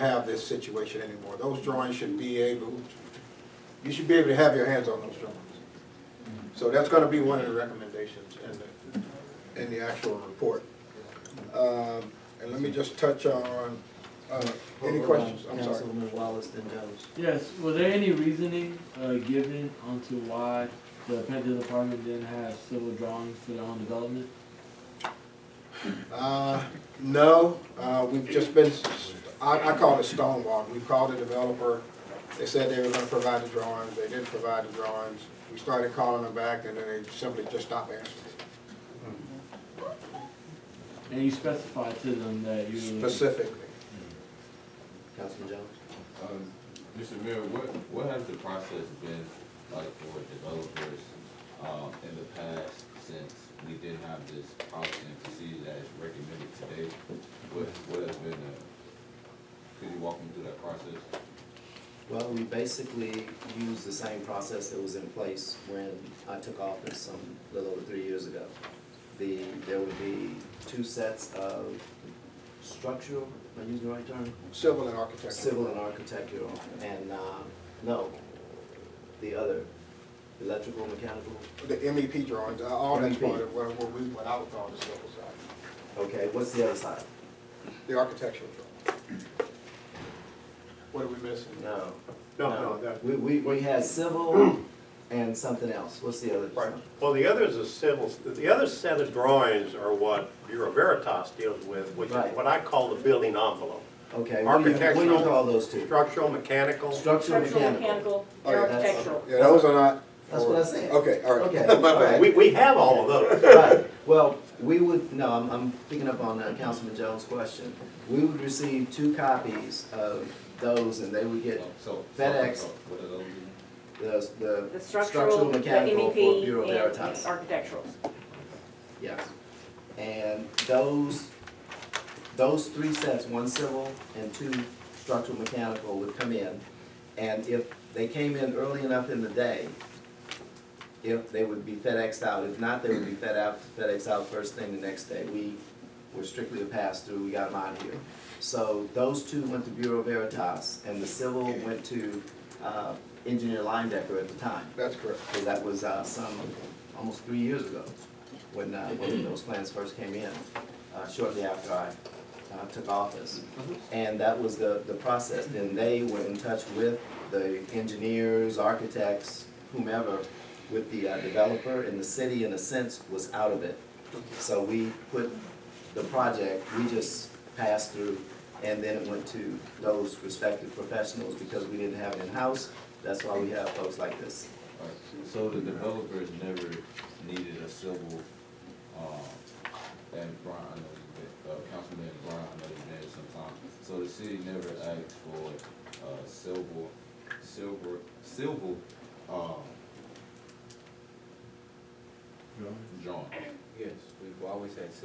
have this situation anymore. Those drawings should be able, you should be able to have your hands on those drawings. So that's gonna be one of the recommendations in the, in the actual report. Um, And let me just touch on, uh, any Hold on, questions, I'm sorry. Councilman Wallace then Jones. Yes, was there any reasoning, uh, given onto why the Penn Department didn't have civil drawings for their own development? Uh, no, uh, we've just been, I, I call it stonewall. We called the developer, they said they were gonna provide the drawings, they didn't provide the drawings. We started calling them back and then they simply just stopped answering. And you specified to them that you. Mm. Specifically, Councilman Jones? Um, Mr. Mayor, what, what has the process been like for developers, um, in the past since we didn't have this policy and procedure that is recommended today? What, what has been, uh, could you walk me through that process? Well, we basically used the same process that was in place when I took office some little over three years ago. The, there would be two sets of structural, am I using the right term? civil and architectural. Civil and architectural, and, uh, no, the other, electrical, mechanical. The MEP drawings, uh, all that's MEP. part of what, what we, what I would call the civil side, Okay, what's the other side? the architectural drawing. What are we missing? No. No, no, that- We, we, we had civil and something else. What's the other? Right. Well, the others are civil, the other set of drawings are what Bureau Veritas deals with, which Right. is what I call the building envelope. Okay, what do you, what do you Architectural- call those two? Structural, mechanical. Structural, Structural, mechanical. mechanical, Oh, yeah, that's- architectural. Yeah, those are not. That's what I said. Okay, all right. Okay, My all bad. right. We, we have all of those. Right, well, we would, no, I'm, I'm picking up on uh, Councilman Jones' question. We would receive two copies of those and they would get So- so- FedEx. so What are those? the, The the structural, structural, the mechanical for Bureau MEP, and Veritas. architectural. Yes. And those, those three sets, one civil and two structural mechanical would come in. And if they came in early enough in the day, if they would be FedExed out, if not, they would be Fed out, FedExed out first thing the next day. We were strictly a pass-through, we got them out of here. So those two went to Bureau Veritas, and the civil went to, uh, Engineer Linedecker at the time. That's correct. Because that was uh, some, almost three years ago, when, uh, when those plans first came in, uh, shortly after I uh, took office. And that was the, the process. Then they were in touch with the engineers, architects, whomever, with the uh, developer, and the city, in a sense, was out of it. So we put the project, we just passed through, and then it went to those respective professionals, because we didn't have it in-house. That's why we have folks like this. Alright, So the developers never needed a civil, um, and Brian, I know you did, uh, Councilman Brian, I know you did sometimes. So the city never asked for, uh, civil, silver, civil, um, drawing. Yes, we've always had